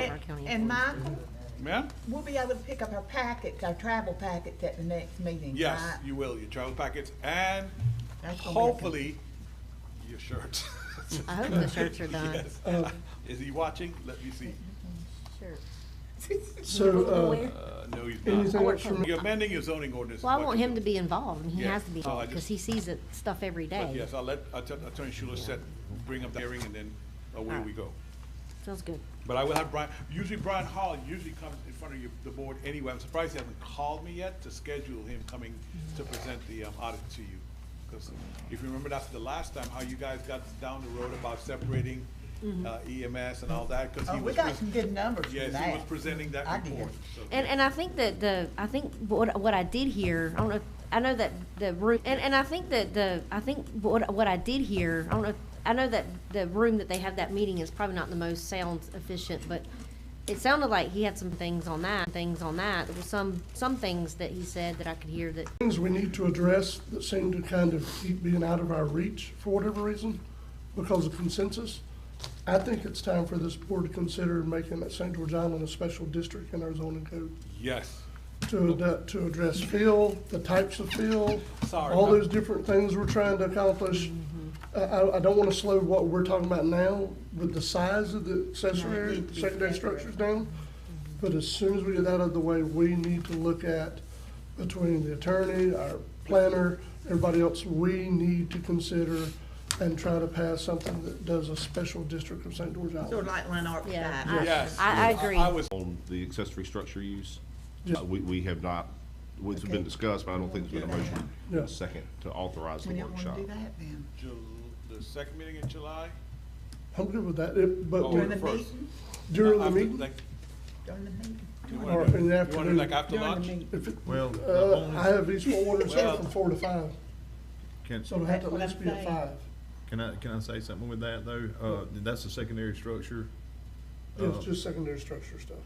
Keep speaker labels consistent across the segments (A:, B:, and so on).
A: our county
B: And
A: employees.
B: Michael,
C: Ma'am?
B: we'll be able to pick up our packets, our travel packets at the next meeting,
C: Yes,
B: right?
C: you will, your travel packets and
B: That's gonna be okay.
C: hopefully your shirts.
A: I hope the shirts are done.
C: Yes. Is he watching? Let me see.
A: Sure.
D: So, uh,
C: Uh, no, he's
D: anything
C: not.
D: else from,
C: You're amending your zoning ordinance. is
A: Well, I
C: what
A: want
C: you're
A: him to
C: doing.
A: be involved, and he
C: Yeah,
A: has to be
C: so I
A: involved, because
C: just-
A: he sees it, stuff every
C: But
A: day.
C: yes, I'll let Att- Attorney Schuler set, bring up the hearing and then away we go.
A: Feels good.
C: But I will have Brian, usually Brian Hall usually comes in front of you, the board anyway. I'm surprised he hasn't called me yet to schedule him coming to present the um, audit to you. Because if you remember, that's the last time, how you guys got down the road about separating uh, EMS and all that, because
B: Mm-hmm. Oh,
C: he
B: we
C: was.
B: got
C: pres-
B: some good numbers for
C: Yes, he was
B: that.
C: presenting
B: I
C: that
B: did.
C: report. so-
A: And, and I think that the, I think what, what I did here, I don't know, I know that the room, and, and I think that the, I think what, what I did here, I don't know, I know that the room that they have that meeting is probably not the most sound efficient, but it sounded like he had some things on that, things on that. There were some, some things that he said that I could hear that,
D: things we need to address that seem to kind of keep being out of our reach for whatever reason, because of consensus. I think it's time for this board to consider making that St. George Island a special district in our zoning code
C: Yes,
D: to, ad- to address fill, the types of fill,
C: Sorry,
D: all
C: no.
D: those different things we're trying to accomplish. I, I, I don't wanna slow what we're talking about now with the size of the accessory, secondary structures down. But as soon as we get that out of the way, we need to look at, between the attorney, our planner, everybody else, we need to consider and try to pass something that does a special district of St. George
B: Sort of
D: Island.
B: like Lanark
A: yeah.
B: style.
A: I-
C: yes.
A: I, I
C: I
A: agree.
C: was,
E: on the accessory structure use.
D: Yeah.
E: Uh, We, we have not, well, it's been discussed, but I don't think there's been a motion in
D: Yeah.
E: a second to authorize
B: We
E: the
B: don't wanna
E: workshop.
B: do that then.
C: Jul- the second meeting in July?
D: I'm good with that, It- but
C: Or
B: During
D: we-
B: the
C: first?
B: meeting,
D: during
C: After,
D: the meeting,
C: like,
B: during the meeting.
C: You
D: Or
C: want to
D: in the
C: do it like
D: afternoon.
C: after
B: During the
C: lunch?
B: meeting.
D: if it,
F: Well, the
D: Uh, I
F: only,
D: have these four orders
C: Well-
D: set from four to five,
F: can,
D: so it'll have to at
B: That's
D: least
B: what
D: be
B: I'm
D: at
B: saying.
D: five.
F: can I, can I say something with that though? Uh, that's a secondary structure. Uh,
D: It's just secondary structure stuff.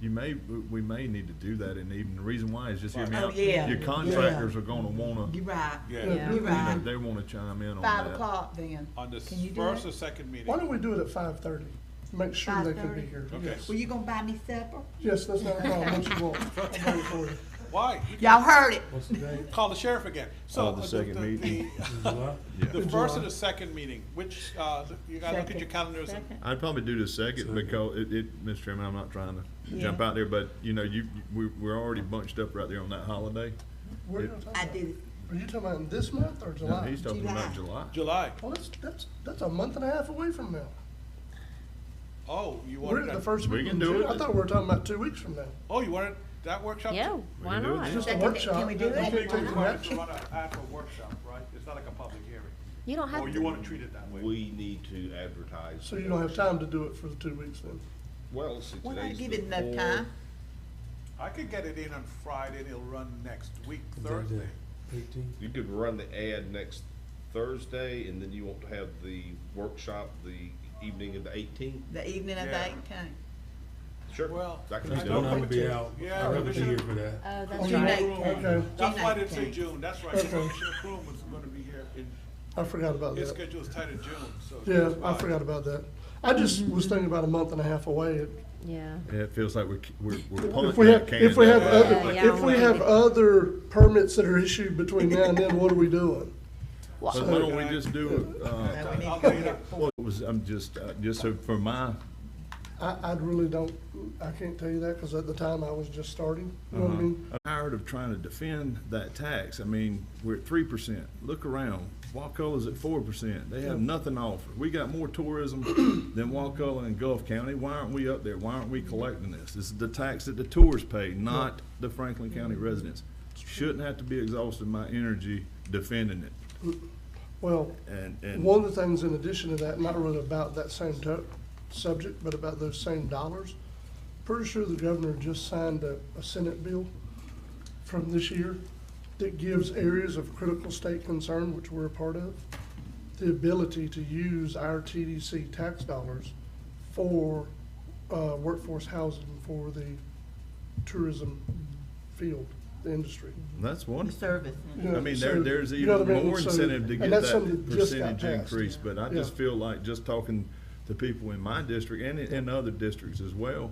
F: You may, we we may need to do that and even, the reason why is just hear me
B: Oh,
F: out.
B: yeah,
F: Your
B: yeah.
F: contractors are gonna wanna,
B: You're
F: you
B: right.
C: Yeah,
B: You're
F: know,
B: right.
F: they wanna chime in on that.
B: Five o'clock then.
C: on the
B: Can you do
C: first
B: that?
C: or second meeting?
D: Why don't we do it at five thirty? Make sure they can be
B: 5:30?
D: here.
C: Okay.
D: Yes.
B: Were you gonna buy me supper?
D: Yes, that's not a problem, what you want. I'll wait for you.
C: Why?
B: Y'all heard it.
C: Call the sheriff again. So uh,
F: Oh, the second meeting.
C: The first or the second meeting, which, uh, you gotta look at your calendars and
F: I'd probably do the second because it, it, Mr. Chairman, I'm not trying to jump out there, but you know, you, you- we, we're already bunched up right there on that holiday.
D: What are you talking
B: I
D: about?
B: did it.
D: Are you talking about in this month or
F: Now,
D: July?
F: He's talking about July.
C: July.
D: Well, that's, that's, that's a month and a half away from now.
C: Oh, you
D: We're
C: wanted
D: at the
C: that,
D: first
F: We
D: week
F: can
D: in
F: do
D: June.
F: it.
D: I thought we were talking about two weeks from now.
C: oh, you wanted that workshop?
A: Yeah,
C: too?
A: why
F: can do it.
A: not?
D: It's just a
B: Can we- can
D: workshop.
B: we do
D: Don't
B: that?
D: take
C: Big
D: any
C: requirement
D: action.
C: to run a- after a workshop, right? It's not like a public hearing.
A: You don't have
C: Or Oh, you
A: to-
C: wanna treat it that way?
E: We need to advertise.
D: So you don't have time to do it for the two weeks then?
E: Well, let's see,
B: Well, I
E: today's
B: give
E: the
B: it enough
E: fourth.
B: time.
C: I could get it in on Friday, and it'll run next week, Thursday.
E: You could run the ad next Thursday, and then you won't have the workshop the evening of the eighteenth.
B: The evening of the
C: Yeah.
B: eighteenth.
E: Sure.
C: Well,
E: That can
C: I
E: be
C: don't
G: Don't
E: done.
G: have to be
C: Commissioner-
G: out.
C: yeah,
G: I'd rather be
C: Commissioner-
G: here for that.
A: Oh, that's
D: Okay.
A: right.
D: Okay,
C: That's why I didn't say
B: Eighteenth.
C: June, that's right. Commissioner Croom was gonna be here, and
D: I forgot about
C: his
D: that.
C: schedule is tight in June, so.
D: Yeah,
C: that's
D: I
C: why.
D: forgot about that. I just
A: Mm-hmm.
D: was thinking about a month and a half away. It-
A: Yeah.
F: Yeah, It feels like we're, we're, we're
D: If
F: punting
D: we
F: that
D: have,
F: can.
D: if we have,
C: Yeah,
D: other-
A: yeah,
D: if we
A: I'm
D: have
A: with you.
D: other permits that are issued between now and then, what are we doing?
F: So why don't we just do, uh,
B: So we need
C: I'll
B: to
C: get
B: come
C: it
B: here.
C: up.
F: what was, I'm just, uh, just so for my,
D: I, I really don't, I can't tell you that, because at the time I was just starting, you know what I mean?
F: I'm tired of trying to defend that tax. I mean, we're at three percent. Look around. Wakulla's at four percent. They have nothing to offer. We got more tourism than Wakulla and Gulf County. Why aren't we up there? Why aren't we collecting this? This is the tax that the tourists pay, not the Franklin County residents. Shouldn't have to be exhausting my energy defending it.
D: Well,
F: And, and
D: one of the things in addition to that, not really about that same to, subject, but about those same dollars, pretty sure the governor just signed a, a Senate bill from this year that gives areas of critical state concern, which we're a part of, the ability to use our TDC tax dollars for, uh, workforce housing for the tourism field, the industry.
F: that's
B: The
F: wonderful.
B: service.
F: I mean, there,
D: So,
F: there's
D: you know
F: even
D: what I mean?
F: more
D: So-
F: incentive to
D: and
F: get
D: that's
F: that
D: something just got
F: percentage
D: passed.
F: increase, but I
D: Yeah.
F: just feel like just talking to people in my district and in, in other districts as well.